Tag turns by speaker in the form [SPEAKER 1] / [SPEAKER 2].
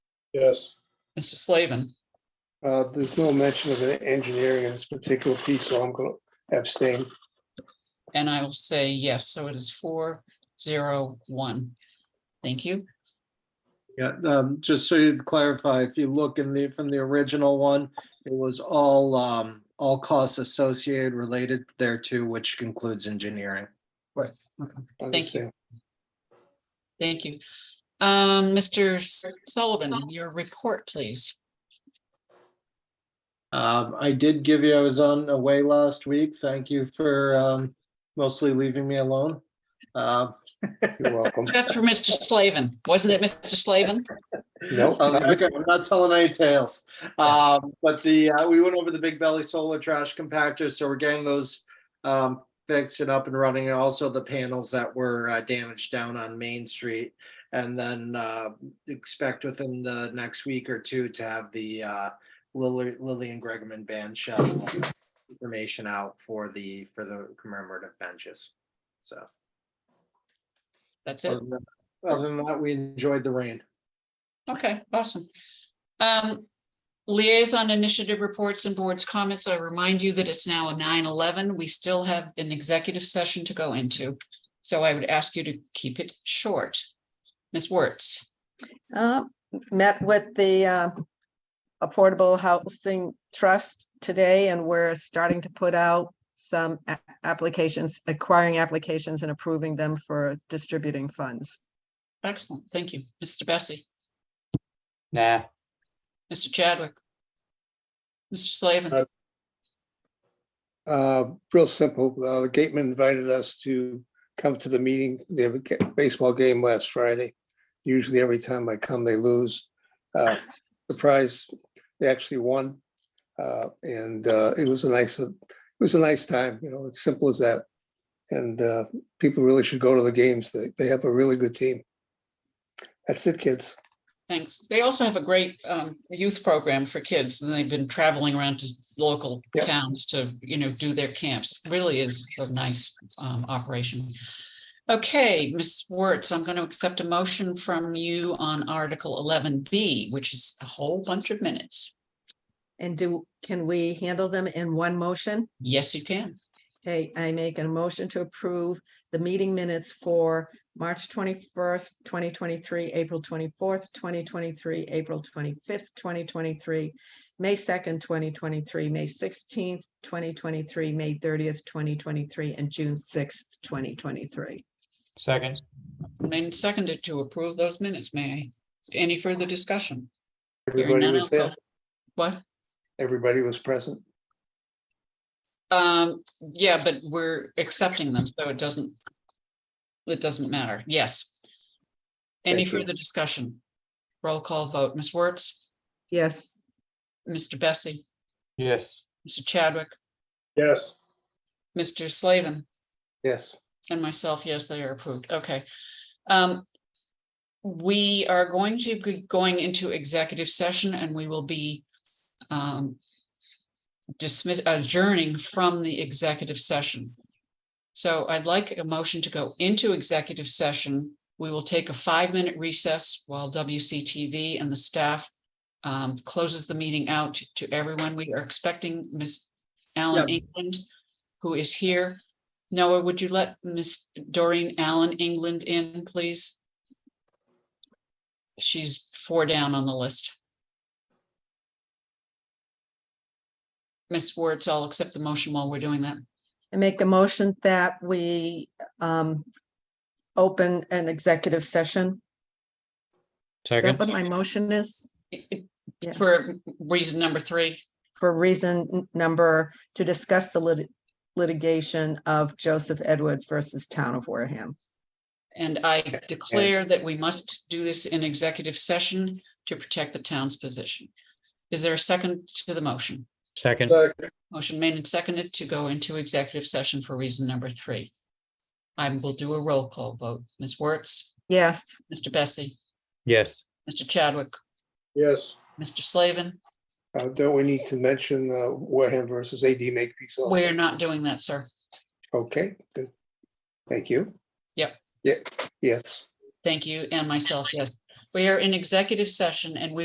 [SPEAKER 1] Yes.
[SPEAKER 2] Mr. Slavin,
[SPEAKER 3] Uh, There's no mention of an engineering in this particular piece, so I'm going to abstain.
[SPEAKER 2] and I will say yes, so it is four zero one. Thank you.
[SPEAKER 4] Yeah, um, just so you clarify, if you look in the, from the original one, it was all, um, all costs associated related thereto, which includes engineering.
[SPEAKER 3] Understand.
[SPEAKER 2] Thank you. Um, Mr. Sullivan, your report, please.
[SPEAKER 4] Um, I did give you, I was on away last week. Thank you for, um, mostly leaving me alone. Um,
[SPEAKER 3] You're welcome.
[SPEAKER 2] Except for Mr. Slavin, wasn't it Mr. Slavin?
[SPEAKER 3] No,
[SPEAKER 4] Um,
[SPEAKER 3] not-
[SPEAKER 4] okay, I'm not telling any tales. Um, but the, uh, we went over the Big Belly Solar Trash Compactor, so we're getting those um, fixed and up and running, and also the panels that were uh, damaged down on Main Street. And then uh, expect within the next week or two to have the uh, Lily, Lily and Gregman band shell information out for the, for the commemorative benches. So,
[SPEAKER 2] That's
[SPEAKER 4] other
[SPEAKER 2] it.
[SPEAKER 4] than that- other than that, we enjoyed the rain.
[SPEAKER 2] Okay, awesome. Um, liaison initiative reports and boards comments. I remind you that it's now nine eleven. We still have an executive session to go into. So I would ask you to keep it short. Ms. Wertz,
[SPEAKER 5] Uh, Met with the uh, Affordable Housing Trust today, and we're starting to put out some a- applications, acquiring applications and approving them for distributing funds.
[SPEAKER 2] excellent. Thank you. Mr. Bessie,
[SPEAKER 6] Nah,
[SPEAKER 2] Mr. Chadwick. Mr. Slavin,
[SPEAKER 1] Uh,
[SPEAKER 3] uh, Real simple. Uh, The Gateman invited us to come to the meeting. They have a ga- baseball game last Friday. Usually every time I come, they lose. Uh, Surprise, they actually won. Uh, And uh, it was a nice, it was a nice time, you know, it's simple as that. And uh, people really should go to the games. They, they have a really good team. That's it, kids.
[SPEAKER 2] thanks. They also have a great um youth program for kids and they've been traveling around to local
[SPEAKER 3] Yep.
[SPEAKER 2] towns to, you know, do their camps. Really is a nice um operation. Okay, Ms. Wertz, I'm going to accept a motion from you on Article eleven B, which is a whole bunch of minutes.
[SPEAKER 5] And do, can we handle them in one motion?
[SPEAKER 2] Yes, you can.
[SPEAKER 5] Okay, I make a motion to approve the meeting minutes for March twenty-first, twenty twenty-three, April twenty-fourth, twenty twenty-three, April twenty-fifth, twenty twenty-three, May second, twenty twenty-three, May sixteenth, twenty twenty-three, May thirtieth, twenty twenty-three, and June sixth, twenty twenty-three.
[SPEAKER 6] second,
[SPEAKER 2] Then seconded to approve those minutes, may I? Any further discussion? Hearing
[SPEAKER 3] Everybody
[SPEAKER 2] none,
[SPEAKER 3] was
[SPEAKER 2] I'll
[SPEAKER 3] there.
[SPEAKER 2] go- What?
[SPEAKER 3] Everybody was present.
[SPEAKER 2] Um, yeah, but we're accepting them, so it doesn't. It doesn't matter. Yes. Any
[SPEAKER 3] Thank you.
[SPEAKER 2] further discussion? Roll call vote. Ms. Wertz,
[SPEAKER 5] Yes,
[SPEAKER 2] Mr. Bessie,
[SPEAKER 6] yes,
[SPEAKER 2] Mr. Chadwick,
[SPEAKER 1] Yes.
[SPEAKER 2] Mr. Slavin,
[SPEAKER 3] Yes.
[SPEAKER 2] and myself, yes, they are approved. Okay. Um. We are going to be going into executive session and we will be. Um. Dismiss adjourning from the executive session. So I'd like a motion to go into executive session. We will take a five-minute recess while WCTV and the staff. Um, closes the meeting out to everyone. We are expecting Ms. Allen England, who is here. Noah, would you let Miss Doreen Allen England in, please? She's four down on the list. Miss Wertz, I'll accept the motion while we're doing that.
[SPEAKER 5] I make the motion that we um open an executive session. Is that
[SPEAKER 6] Second.
[SPEAKER 5] What my motion is?
[SPEAKER 2] It- it-
[SPEAKER 5] Yeah.
[SPEAKER 2] For reason number three,
[SPEAKER 5] for reason n- number to discuss the lit- litigation of Joseph Edwards versus Town of Wareham.
[SPEAKER 2] and I declare that we must do this in executive session to protect the town's position. Is there a second to the motion?
[SPEAKER 6] second,
[SPEAKER 1] Second.
[SPEAKER 2] Motion made and seconded to go into executive session for reason number three. I will do a roll call vote. Ms. Wertz,
[SPEAKER 5] Yes.
[SPEAKER 2] Mr. Bessie,
[SPEAKER 6] yes,
[SPEAKER 2] Mr. Chadwick,
[SPEAKER 1] Yes.
[SPEAKER 2] Mr. Slavin.
[SPEAKER 3] Uh, Don't we need to mention uh, Wareham versus AD Makepeace also?
[SPEAKER 2] We're not doing that, sir.
[SPEAKER 3] Okay, good. Thank you.
[SPEAKER 2] Yep.
[SPEAKER 3] Yeah, yes.
[SPEAKER 2] Thank you, and myself, yes. We are in executive session and we